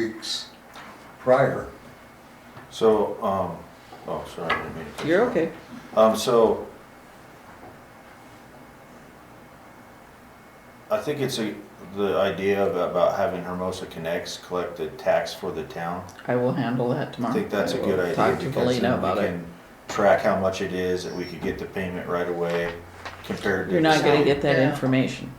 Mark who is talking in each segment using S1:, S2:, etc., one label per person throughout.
S1: weeks prior.
S2: So, um, oh, sorry, I didn't mean to. cut you
S3: You're
S2: off.
S3: okay.
S2: Um, so. I think it's a, the idea of, about having Hermosa Connects collect the tax for the town.
S3: I will handle that tomorrow.
S2: I think that's a
S3: will
S2: good idea.
S3: Talk to
S2: because
S3: Polina
S2: then
S3: about
S2: we
S3: it.
S2: can Track how much it is, and we could get the payment right away compared to.
S3: You're
S2: the
S3: not gonna
S2: state.
S3: get that
S4: Yeah.
S3: information.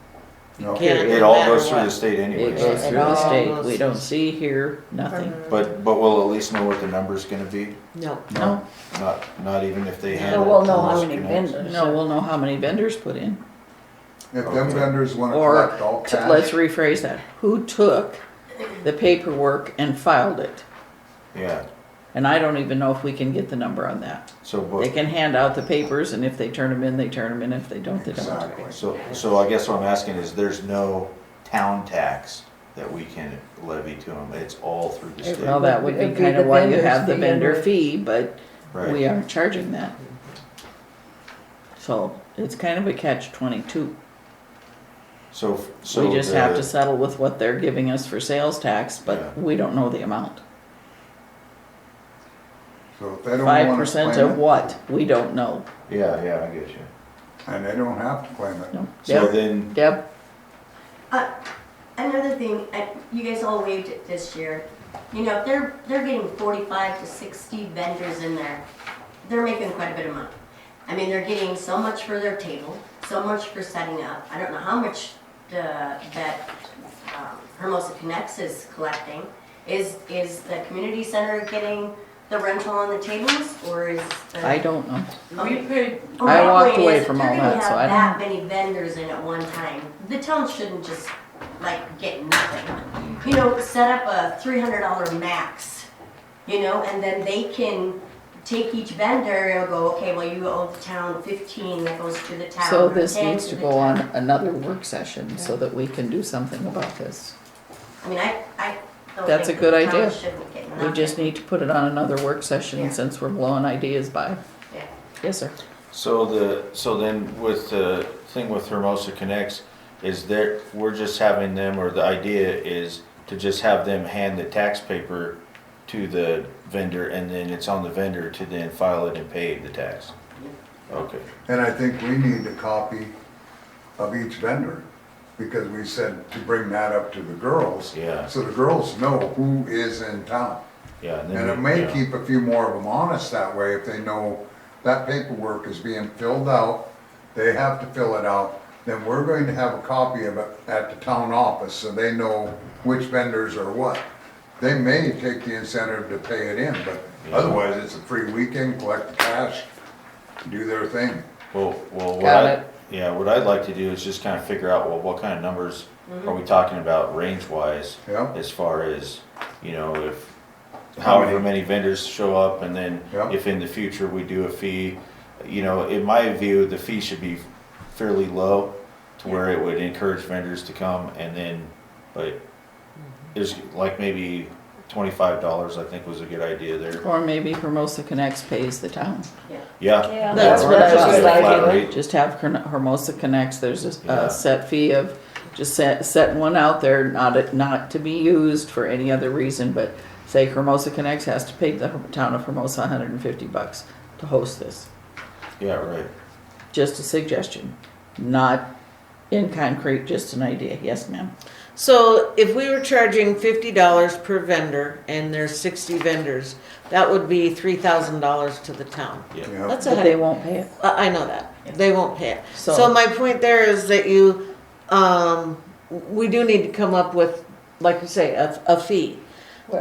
S1: No.
S4: Yeah.
S2: It all
S4: No matter
S2: goes through the
S4: what.
S2: state
S3: It
S2: anyways.
S3: goes
S4: It
S3: through the
S4: all
S3: state.
S4: goes-
S3: We don't see, hear, nothing.
S2: But, but we'll at least know what the number's gonna be,
S4: No.
S3: No,
S2: not, not even if they
S4: So
S2: handle.
S4: we'll know how
S2: Hermosa
S4: many
S2: Connects.
S4: vendors.
S3: no, we'll know how many vendors put in.
S1: If them vendors wanna
S3: Or,
S1: collect all
S3: t- let's
S1: cash,
S3: rephrase that. Who took the paperwork and filed it?
S2: Yeah,
S3: And I don't even know if we can get the number on that.
S2: so.
S3: They
S2: but-
S3: can hand out the papers and if they turn them in, they turn them in. If they don't, they don't.
S1: Exactly.
S2: So, so I guess what I'm asking is, there's no town tax that we can levy to them, it's all through the
S3: Well,
S2: state,
S3: that would be
S4: It'd be
S3: kind of
S4: the
S3: why you
S4: vendor's
S3: have the
S4: fee
S3: vendor
S4: anyway.
S3: fee, but we uh,
S2: right?
S3: aren't charging that. So it's kind of a catch twenty-two.
S2: So, f- so.
S3: We just have to
S2: the-
S3: settle with what they're giving us for sales tax, but
S2: Yeah.
S3: we don't know the amount.
S1: so if they don't
S3: Five
S1: wanna
S3: percent of
S1: claim it,
S3: what? We don't know.
S2: Yeah, yeah, I get you.
S1: and they don't have to claim it.
S3: No.
S2: So
S3: Deb,
S2: then,
S3: Deb,
S5: Uh, Another thing, I- you guys all waived it this year. You know, they're, they're getting forty-five to sixty vendors in there. They're making quite a bit of money. I mean, they're getting so much for their table, so much for setting up. I don't know how much the, that um, Hermosa Connects is collecting. Is, is the community center getting the rental on the tables, or is the? Oh,
S3: I don't know.
S5: Okay.
S4: We paid,
S5: Well, my
S3: I walked
S5: point
S3: away
S5: is,
S3: from
S5: if
S3: all
S5: you're gonna
S3: that, so
S5: have
S3: I don't
S5: That many vendors in at one time, the town shouldn't just like get nothing.
S3: Mm.
S5: You know, set up a three hundred dollar max, you know, and then they can take each vendor and go, okay, well, you owe the town fifteen, that goes to the town.
S3: So
S5: or
S3: this
S5: 10
S3: needs to
S5: the
S3: go
S5: town."
S3: on another work session so that we can do something about this.
S5: I mean, I, I. don't
S3: That's
S5: think
S3: a good
S5: the town
S3: idea.
S5: shouldn't get
S3: We just
S5: nothing.
S3: need to put it on another work
S5: Yeah.
S3: session since we're blowing ideas by.
S5: Yeah.
S3: Yes, sir.
S2: so the, so then with the thing with Hermosa Connects, is there, we're just having them, or the idea is to just have them hand the tax paper to the vendor, and then it's on the vendor to then file it and pay the tax? Okay.
S1: And I think we need a copy of each vendor, because we said to bring that up to the girls.
S2: Yeah.
S1: So the girls know who is in town.
S2: Yeah. then
S1: And it
S2: we-
S1: may
S2: yeah.
S1: keep a few more of them honest that way, if they know that paperwork is being filled out, they have to fill it out, then we're going to have a copy of it at the town office, so they know which vendors are what. They may take the incentive to pay it in, but
S2: Yeah.
S1: otherwise, it's a free weekend, collect the cash, do their thing.
S2: Well, well, what
S3: Got
S2: I,
S3: it.
S2: yeah, what I'd like to do is just kind of figure out, well, what kind of numbers
S3: Mm-hmm.
S2: are we talking about range wise?
S1: Yeah.
S2: As far as, you know, if
S1: How many?
S2: however many vendors show up and then
S1: Yeah.
S2: if in the future we do a fee, you know, in my view, the fee should be fairly low to where it would encourage vendors to come and then, but
S3: Mm-hmm.
S2: there's like maybe twenty-five dollars, I think was a good idea there.
S3: Or maybe Hermosa Connects pays the town.
S2: Yeah.
S3: That's
S2: Yeah.
S3: what I
S2: Just
S3: was
S2: a flat
S3: thinking.
S2: rate.
S3: Just have Herm- Hermosa Connects, there's a,
S2: Yeah.
S3: a set fee of, just set, setting one out there, not, not to be used for any other reason, but say Hermosa Connects has to pay the town of Hermosa hundred and fifty bucks to host this.
S2: Yeah, right.
S3: Just a suggestion, not in concrete, just an idea. Yes, ma'am.
S4: so if we were charging fifty dollars per vendor and there's sixty vendors, that would be three thousand dollars to the town.
S2: Yeah.
S1: you know?
S4: That's a
S3: But they
S4: heck,
S3: won't pay it.
S4: I I know that, they won't pay it.
S3: So-
S4: So my point there is that you, um, we do need to come up with, like you say, a, a fee.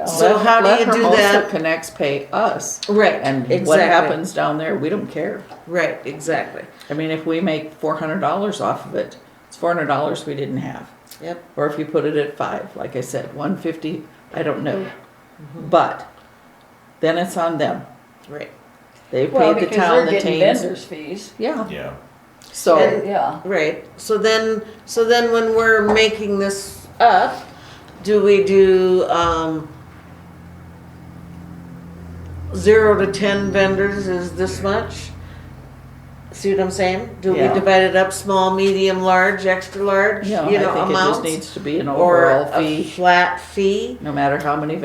S4: So
S3: Let-
S4: how do
S3: let
S4: you do
S3: Hermosa
S4: that?
S3: Connects pay us,
S4: Right,
S3: and what
S4: exactly.
S3: happens down there, we don't care.
S4: Right, exactly,
S3: I mean, if we make four hundred dollars off of it, it's four hundred dollars we didn't have.
S4: yep,
S3: Or if you put it at five, like I said, one fifty, I don't know.
S6: Mm-hmm.
S3: But then it's on them.
S4: right.
S3: They
S6: Well,
S3: paid the
S6: because
S3: town
S6: they're
S3: the
S6: getting
S3: tames.
S6: vendors fees.
S3: Yeah,
S2: Yeah.
S3: so
S4: And-
S6: Yeah.
S4: Right. So then, so then when we're making this up, do we do um, zero to ten vendors is this much? See what I'm saying? Do we
S3: Yeah.
S4: divide it up, small, medium, large, extra large, you
S3: Yeah, I
S4: know,
S3: think it just
S4: amounts?
S3: needs to be an
S4: Or
S3: overall
S4: a
S3: fee,
S4: flat fee?
S3: no matter how many